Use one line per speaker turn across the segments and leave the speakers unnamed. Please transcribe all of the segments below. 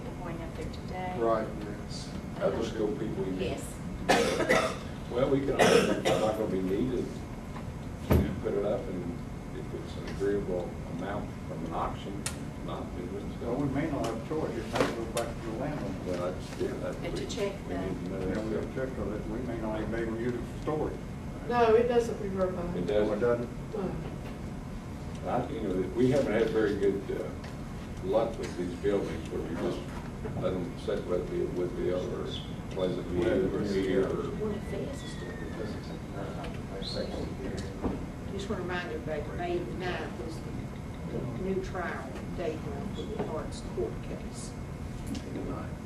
here today.
Right, yes.
Other school people you meet.
Yes.
Well, we can, always- it's not gonna be needed, you can put it up and if it's an agreeable amount from an auction, not be with
So we
going.
may not have a choice, it may go back to the landlord.
Well, that's, yeah, that's.
Had to
we-
check
we
that.
need to know
You know, we have
that.
to check on it, we may not even be able to use it for storage.
No, it doesn't revert back.
It
Or it
does,
doesn't.
No.
I, you know, that we haven't had very good uh, luck with these buildings where we just let them sit with the, with the other pleasant view or here or.
One of these is doing it.
Just want to remind everybody, that May the ninth was the new trial date for the Hart's court case.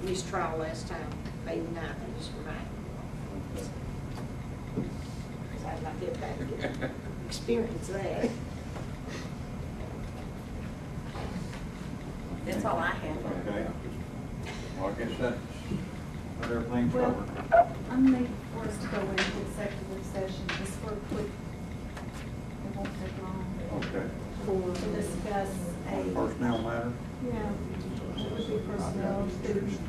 Missed trial last time, May the ninth, I just remind you. Because I'd like to get back and get- experience that.
That's all I have.
Okay. Well, I guess that's, that everything
Well,
covered.
I'm ready for us to go into executive session just for a quick, it won't take long,
Okay.
For-
to discuss a,
Personnel matter?
yeah, it would be personnel, student,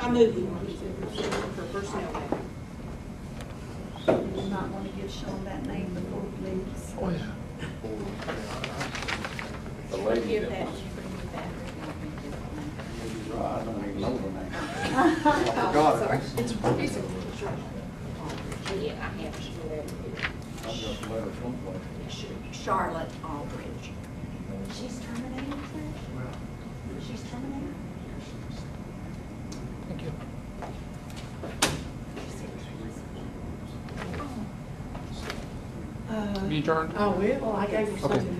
I move you want to for personnel matter.
you do not want to get shown that name before it leaves. Oh, yeah.
The lady
Forgive
that
that,
was,
forgive that.
Maybe right, I don't even know the name. I
Oh,
forgot
sorry.
it.
Yeah, I have to do that.
I just let her someplace.
Charlotte Aldridge. She's terminated, sir? She's terminated? Thank you.
Uh,
Be adjourned.
Oh, I will, I gave her something